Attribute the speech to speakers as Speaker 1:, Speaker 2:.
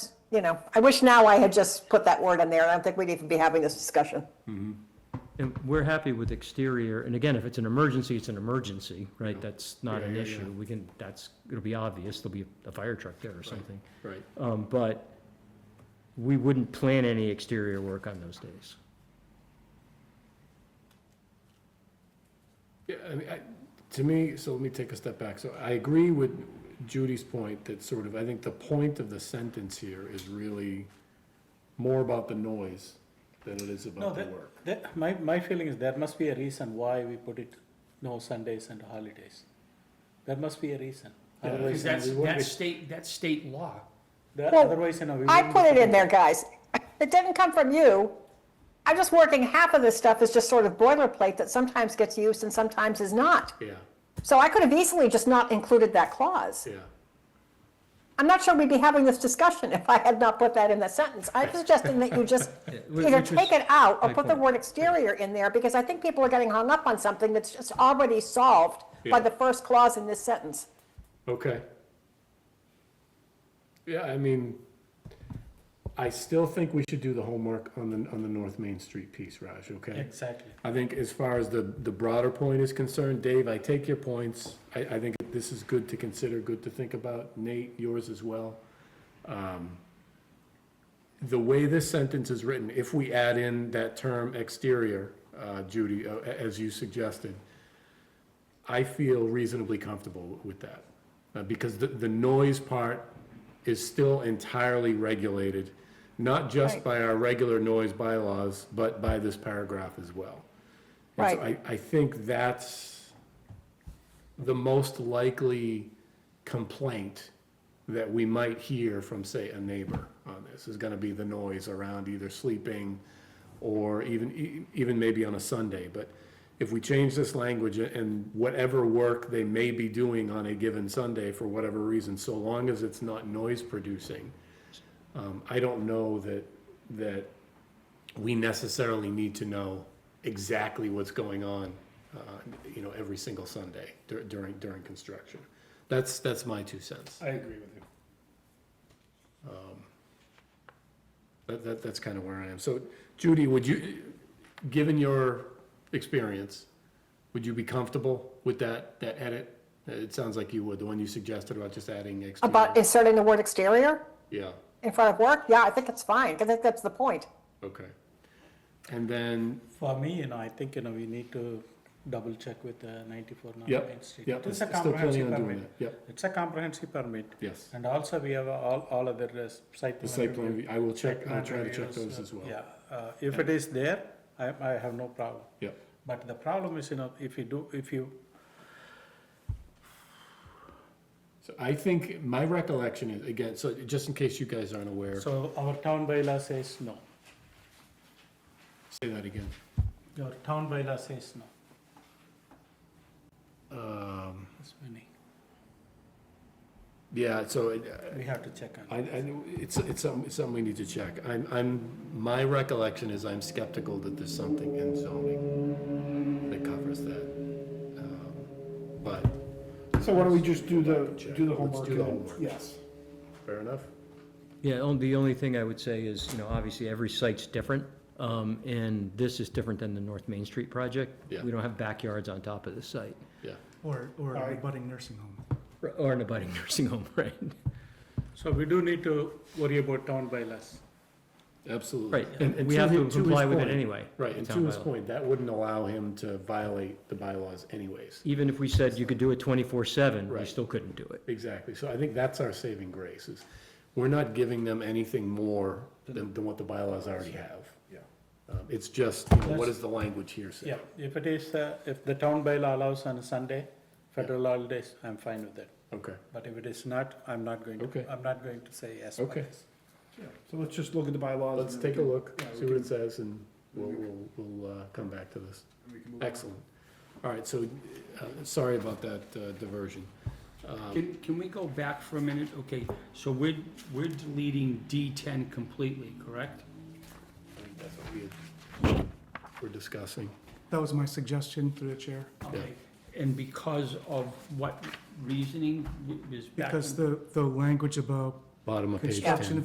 Speaker 1: you know, I wish now I had just put that word in there. I don't think we'd even be having this discussion.
Speaker 2: And we're happy with exterior, and again, if it's an emergency, it's an emergency, right? That's not
Speaker 3: Yeah,
Speaker 2: an
Speaker 3: yeah,
Speaker 2: issue.
Speaker 3: yeah.
Speaker 2: We can, that's, it'll be obvious, there'll be a fire truck there or something.
Speaker 3: Right.
Speaker 2: Um, but we wouldn't plan any exterior work on those days.
Speaker 3: Yeah, I mean, I, to me, so let me take a step back. So I agree with Judy's point that sort of, I think the point of the sentence here is really more about the noise than it is
Speaker 4: No,
Speaker 3: about the
Speaker 4: that,
Speaker 3: work.
Speaker 4: that, my, my feeling is there must be a reason why we put it, no Sundays and holidays. There must be a reason.
Speaker 3: Yeah,
Speaker 4: Otherwise,
Speaker 5: Because
Speaker 4: you know,
Speaker 5: that's,
Speaker 4: we wouldn't
Speaker 5: that's
Speaker 4: be,
Speaker 5: state, that's state law.
Speaker 4: that-
Speaker 1: Well,
Speaker 4: otherwise, you know, we
Speaker 1: I
Speaker 4: wouldn't
Speaker 1: put
Speaker 4: be
Speaker 1: it in
Speaker 4: putting-
Speaker 1: there, guys. It didn't come from you. I'm just working, half of this stuff is just sort of boilerplate that sometimes gets used and sometimes is not.
Speaker 3: Yeah,
Speaker 1: So I could have easily just not included that clause.
Speaker 3: yeah.
Speaker 1: I'm not sure we'd be having this discussion if I had not put that in the sentence. I'm suggesting that you just
Speaker 2: whi-
Speaker 1: either
Speaker 2: which is
Speaker 1: take it out or
Speaker 2: my
Speaker 1: put the
Speaker 2: point.
Speaker 1: word exterior in there, because I think people are getting hung up on something that's just already solved
Speaker 3: Yeah.
Speaker 1: by the first clause in this sentence.
Speaker 3: Okay. Yeah, I mean, I still think we should do the homework on the, on the North Main Street piece, Raj, okay?
Speaker 4: Exactly.
Speaker 3: I think as far as the, the broader point is concerned, Dave, I take your points. I, I think this is good to consider, good to think about. Nate, yours as well. Um, The way this sentence is written, if we add in that term exterior, uh, Judy, uh, a- as you suggested, I feel reasonably comfortable with that. Uh, Because the, the noise part is still entirely regulated, not just
Speaker 1: Right.
Speaker 3: by our regular noise bylaws, but by this paragraph as well. And so
Speaker 1: Right.
Speaker 3: I, I think that's the most likely complaint that we might hear from, say, a neighbor on this, is gonna be the noise around either sleeping or even, e- even maybe on a Sunday, but if we change this language and whatever work they may be doing on a given Sunday for whatever reason, so long as it's not noise producing, um, I don't know that, that we necessarily need to know exactly what's going on, uh, you know, every single Sunday dur- during, during construction. That's, that's my two cents. Um,
Speaker 4: I agree with you.
Speaker 3: That, that, that's kind of where I am. So Judy, would you, given your experience, would you be comfortable with that, that edit? Uh, It sounds like you would, the one you suggested about just adding exterior.
Speaker 2: Mm-hmm.
Speaker 1: About inserting the word exterior
Speaker 3: Yeah,
Speaker 1: in front of work, yeah, I think it's fine, because I think that's the point.
Speaker 3: okay. And then,
Speaker 4: For me, you know, I think, you know, we need to double check with uh, ninety-four North
Speaker 3: Yep,
Speaker 4: Main Street.
Speaker 3: yep,
Speaker 4: It is a
Speaker 3: still planning
Speaker 4: comprehensive
Speaker 3: on doing
Speaker 4: permit.
Speaker 3: that, yep,
Speaker 4: It's a comprehensive permit.
Speaker 3: yes.
Speaker 4: And also, we have all, all other uh, site.
Speaker 3: The
Speaker 4: plan
Speaker 3: site plan,
Speaker 4: review.
Speaker 3: review, I will check, I'll
Speaker 4: Plan
Speaker 3: try to check
Speaker 4: reviews,
Speaker 3: those
Speaker 4: uh,
Speaker 3: as well.
Speaker 4: Yeah, uh, if it is there, I, I have no problem.
Speaker 3: Yep.
Speaker 4: But the problem is, you know, if you do, if you
Speaker 3: So I think my recollection is, again, so just in case you guys aren't aware,
Speaker 4: So our town bylaw says no.
Speaker 3: say that again.
Speaker 4: Your town bylaw says no.
Speaker 3: Um,
Speaker 4: That's many.
Speaker 3: yeah, so it-
Speaker 4: We have to check on.
Speaker 3: I, I, know- it's, it's something, it's something we need to check. I'm, I'm, my recollection is I'm skeptical that there's something in zoning that covers that. Um, But,
Speaker 5: So why don't we just do the,
Speaker 3: Check.
Speaker 5: do the
Speaker 3: Let's
Speaker 5: homework?
Speaker 3: do the
Speaker 5: and-
Speaker 3: homework.
Speaker 5: Yes.
Speaker 3: fair enough?
Speaker 2: Yeah, on- the only thing I would say is, you know, obviously every site's different, um, and this is different than the North Main Street project.
Speaker 3: Yeah.
Speaker 2: We don't have backyards on top of the site,
Speaker 3: Yeah.
Speaker 6: Or, or
Speaker 5: All
Speaker 6: a
Speaker 5: right.
Speaker 6: budding nursing home.
Speaker 2: or- or an abutting nursing home, right?
Speaker 4: So we do need to worry about town bylaws.
Speaker 3: Absolutely.
Speaker 2: Right,
Speaker 3: And- and
Speaker 2: we have to
Speaker 3: his- his
Speaker 2: comply with it
Speaker 3: point-
Speaker 2: anyway.
Speaker 3: Right,
Speaker 2: the
Speaker 3: and
Speaker 2: town
Speaker 3: to his
Speaker 2: bylaw.
Speaker 3: point, that wouldn't allow him to violate the bylaws anyways.
Speaker 2: Even if we said you could do it twenty-four seven, we
Speaker 3: Right.
Speaker 2: still couldn't do it.
Speaker 3: Exactly, so I think that's our saving grace, is we're not giving them anything more than, than what the bylaws already have.
Speaker 5: Yeah.
Speaker 3: Um, It's just, you know, what does the language here say?
Speaker 4: Yeah, if it is, uh, if the town bylaw allows on a Sunday, federal holidays, I'm fine with that.
Speaker 3: Okay,
Speaker 4: But if it is not, I'm not going
Speaker 3: Okay.
Speaker 4: to, I'm not going to say yes.
Speaker 3: okay,
Speaker 5: Yeah. So let's just look at the bylaws.
Speaker 3: let's
Speaker 5: and then
Speaker 3: take a look,
Speaker 5: yeah, we
Speaker 3: see what
Speaker 5: can-
Speaker 3: it says, and we'll, we'll, we'll, uh, come back to this.
Speaker 5: we can move on.
Speaker 3: Excellent. All right, so, uh, sorry about that, uh, diversion. Um,
Speaker 5: Can-
Speaker 7: Can we go back for a minute? Okay, so we're, we're deleting D10 completely, correct?
Speaker 3: I think that's what we had- We're discussing,
Speaker 6: That was my suggestion through the chair,
Speaker 7: Okay. And because of what reasoning was back?
Speaker 6: because the, the language about
Speaker 3: bottom of page ten.
Speaker 6: construction